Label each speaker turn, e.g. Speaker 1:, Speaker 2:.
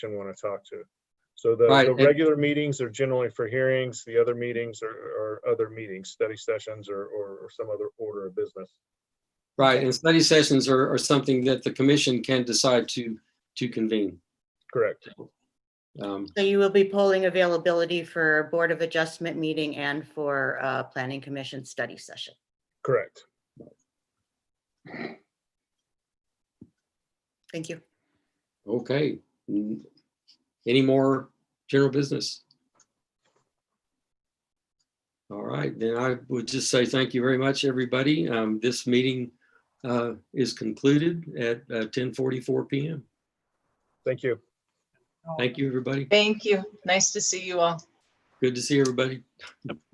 Speaker 1: want to talk to. So the,
Speaker 2: Right,
Speaker 1: the
Speaker 2: and-
Speaker 1: regular meetings are generally for hearings, the other meetings are, are other meetings, study sessions or, or or some other order of business.
Speaker 2: Right, and study sessions are, are something that the commission can decide to, to convene.
Speaker 1: Correct.
Speaker 2: Um,
Speaker 3: So you will be polling availability for Board of Adjustment meeting and for uh, Planning Commission study session.
Speaker 1: Correct.
Speaker 3: Thank you.
Speaker 2: Okay. N- Any more general business? All right, then I would just say thank you very much, everybody. Um, This meeting uh, is concluded at uh, 10:44 PM.
Speaker 1: Thank you.
Speaker 2: Thank you, everybody.
Speaker 4: Thank you. Nice to see you all.
Speaker 2: Good to see everybody.